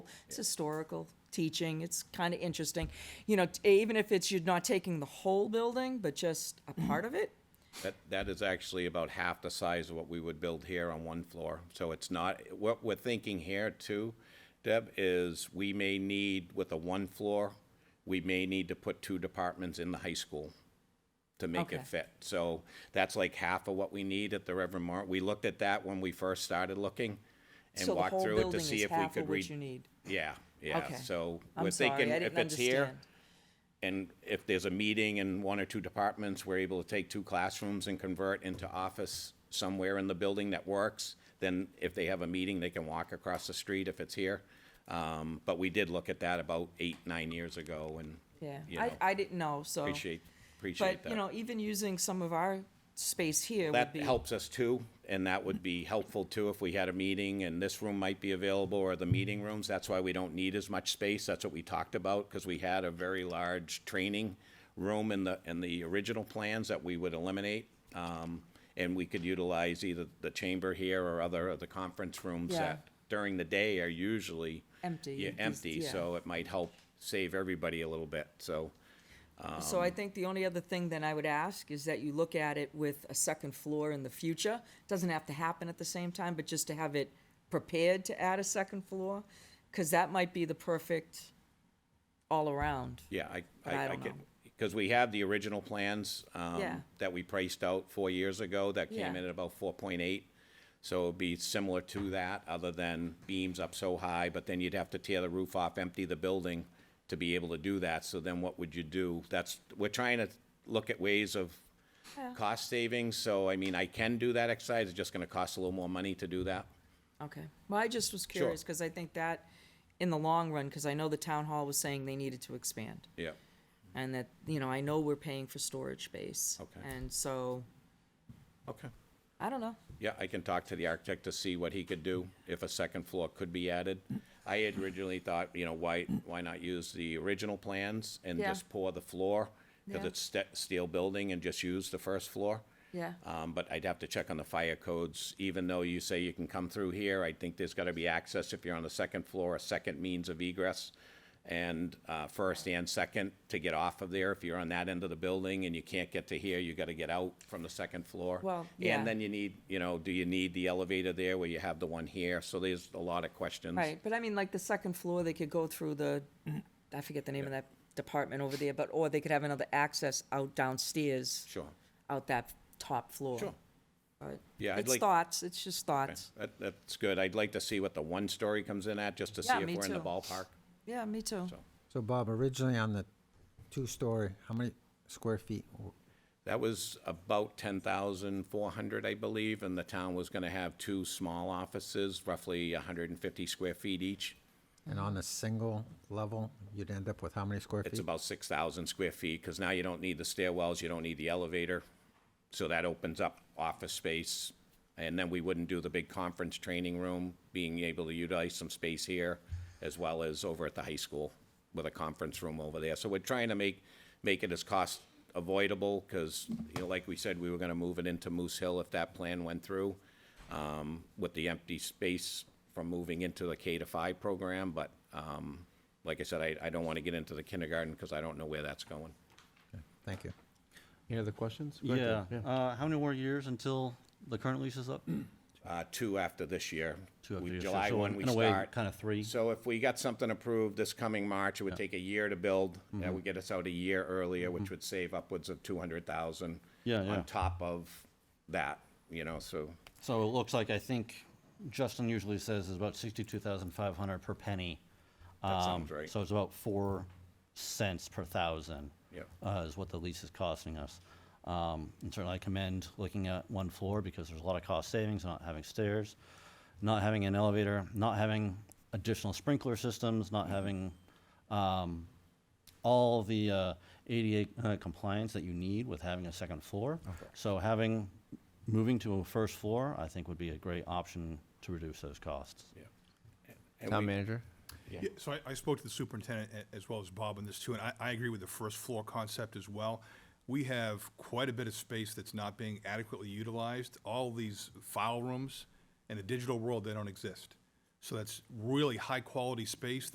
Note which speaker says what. Speaker 1: It's historical teaching. It's kind of interesting. You know, t- even if it's you're not taking the whole building, but just a part of it,
Speaker 2: That, that is actually about half the size of what we would build here on one floor. So it's not, what we're thinking here too, Deb, is we may need, with a one floor, we may need to put two departments in the high school to make
Speaker 1: Okay.
Speaker 2: it fit. So that's like half of what we need at the Reverend Mar. We looked at that when we first started looking and
Speaker 1: so the
Speaker 2: walked
Speaker 1: whole
Speaker 2: through it to
Speaker 1: building
Speaker 2: see
Speaker 1: is
Speaker 2: if we
Speaker 1: half
Speaker 2: could
Speaker 1: of what
Speaker 2: read.
Speaker 1: you need.
Speaker 2: Yeah, yeah.
Speaker 1: Okay.
Speaker 2: So
Speaker 1: I'm
Speaker 2: we're thinking
Speaker 1: sorry, I
Speaker 2: if
Speaker 1: didn't
Speaker 2: it's here,
Speaker 1: understand.
Speaker 2: and if there's a meeting in one or two departments, we're able to take two classrooms and convert into office somewhere in the building that works, then if they have a meeting, they can walk across the street if it's here. Um, but we did look at that about eight, nine years ago and, you
Speaker 1: Yeah,
Speaker 2: know,
Speaker 1: I, I didn't know, so.
Speaker 2: appreciate, appreciate
Speaker 1: But, you
Speaker 2: that.
Speaker 1: know, even using some of our space here would
Speaker 2: That
Speaker 1: be.
Speaker 2: helps us too, and that would be helpful too if we had a meeting and this room might be available or the meeting rooms. That's why we don't need as much space. That's what we talked about, because we had a very large training room in the, in the original plans that we would eliminate. Um, and we could utilize either the chamber here or other of the conference rooms
Speaker 1: Yeah.
Speaker 2: that during the day are usually.
Speaker 1: Empty,
Speaker 2: Yeah,
Speaker 1: these-
Speaker 2: empty,
Speaker 1: yeah.
Speaker 2: so it might help save everybody a little bit, so.
Speaker 1: So
Speaker 2: Um,
Speaker 1: I think the only other thing then I would ask is that you look at it with a second floor in the future. Doesn't have to happen at the same time, but just to have it prepared to add a second floor, because that might be the perfect all-around.
Speaker 2: Yeah, I,
Speaker 1: But I
Speaker 2: I, I
Speaker 1: don't
Speaker 2: get,
Speaker 1: know.
Speaker 2: because we have the original plans,
Speaker 1: Yeah.
Speaker 2: um, that we priced out four years ago that came
Speaker 1: Yeah.
Speaker 2: in at about four point eight. So it'd be similar to that, other than beams up so high, but then you'd have to tear the roof off, empty the building to be able to do that. So then what would you do? That's, we're trying to look at ways of cost savings, so I mean, I can do that exercise, it's just gonna cost a little more money to do that.
Speaker 1: Okay. Well, I just was
Speaker 2: Sure.
Speaker 1: curious, because I think that, in the long run, because I know the town hall was saying they needed to expand.
Speaker 2: Yeah.
Speaker 1: And that, you know, I know we're paying for storage space.
Speaker 2: Okay.
Speaker 1: And so,
Speaker 2: Okay.
Speaker 1: I don't know.
Speaker 2: Yeah, I can talk to the architect to see what he could do, if a second floor could be added. I had originally thought, you know, why, why not use the original plans and
Speaker 1: Yeah.
Speaker 2: just pour the floor? Because
Speaker 1: Yeah.
Speaker 2: it's ste- steel building and just use the first floor.
Speaker 1: Yeah.
Speaker 2: Um, but I'd have to check on the fire codes, even though you say you can come through here, I think there's gotta be access if you're on the second floor, a second means of egress. And, uh, first and second to get off of there, if you're on that end of the building and you can't get to here, you gotta get out from the second floor.
Speaker 1: Well, yeah.
Speaker 2: And then you need, you know, do you need the elevator there where you have the one here? So there's a lot of questions.
Speaker 1: Right, but I mean, like the second floor, they could go through the,
Speaker 2: Mm-hmm.
Speaker 1: I forget the name of that department over there, but, or they could have another access out downstairs.
Speaker 2: Sure.
Speaker 1: Out that top floor.
Speaker 2: Sure.
Speaker 1: But
Speaker 2: Yeah, I'd
Speaker 1: It's
Speaker 2: like-
Speaker 1: thoughts, it's just thoughts.
Speaker 2: That, that's good. I'd like to see what the one story comes in at, just to see
Speaker 1: Yeah,
Speaker 2: if
Speaker 1: me
Speaker 2: we're in the
Speaker 1: too.
Speaker 2: ballpark.
Speaker 1: Yeah, me too.
Speaker 3: So Bob, originally on the two-story, how many square feet?
Speaker 2: That was about ten thousand four hundred, I believe, and the town was gonna have two small offices, roughly hundred and fifty square feet each.
Speaker 3: And on a single level, you'd end up with how many square
Speaker 2: It's
Speaker 3: feet?
Speaker 2: about six thousand square feet, because now you don't need the stairwells, you don't need the elevator. So that opens up office space, and then we wouldn't do the big conference training room, being able to utilize some space here, as well as over at the high school with a conference room over there. So we're trying to make, make it as cost avoidable, because, you know, like we said, we were gonna move it into Moose Hill if that plan went through, um, with the empty space from moving into the K to five program, but, um, like I said, I, I don't want to get into the kindergarten because I don't know where that's going.
Speaker 3: Thank you.
Speaker 4: Any other questions? Go ahead,
Speaker 5: Yeah.
Speaker 4: Dave.
Speaker 5: Uh, how many more years until the current lease is up?
Speaker 2: Uh, two after this year.
Speaker 5: Two after
Speaker 2: We-
Speaker 5: this year,
Speaker 2: July
Speaker 5: so
Speaker 2: one,
Speaker 5: in-
Speaker 2: we
Speaker 5: in a way,
Speaker 2: start.
Speaker 5: kinda three.
Speaker 2: So if we got something approved this coming March, it would take a year to build.
Speaker 5: Mm-hmm.
Speaker 2: That would get us out a year earlier, which would save upwards of two hundred thousand.
Speaker 5: Yeah, yeah.
Speaker 2: On top of that, you know, so,
Speaker 5: So it looks like, I think Justin usually says is about sixty-two thousand five hundred per penny.
Speaker 2: That sounds
Speaker 5: Um,
Speaker 2: right.
Speaker 5: So it's about four cents per thousand.
Speaker 2: Yep.
Speaker 5: Uh, is what the lease is costing us. Um, and certainly I commend looking at one floor because there's a lot of cost savings, not having stairs, not having an elevator, not having additional sprinkler systems, not having, um, all the uh, ADA uh, compliance that you need with having a second floor. So having, moving to a first floor, I think would be a great option to reduce those costs.
Speaker 2: yeah. And
Speaker 4: Town
Speaker 2: we-
Speaker 4: manager?
Speaker 6: Yeah, so I, I spoke to the superintendent a- as well as Bob on this too, and I, I agree with the first floor concept as well. We have quite a bit of space that's not being adequately utilized. All these file rooms, in the digital world, they don't exist. So that's really high-quality space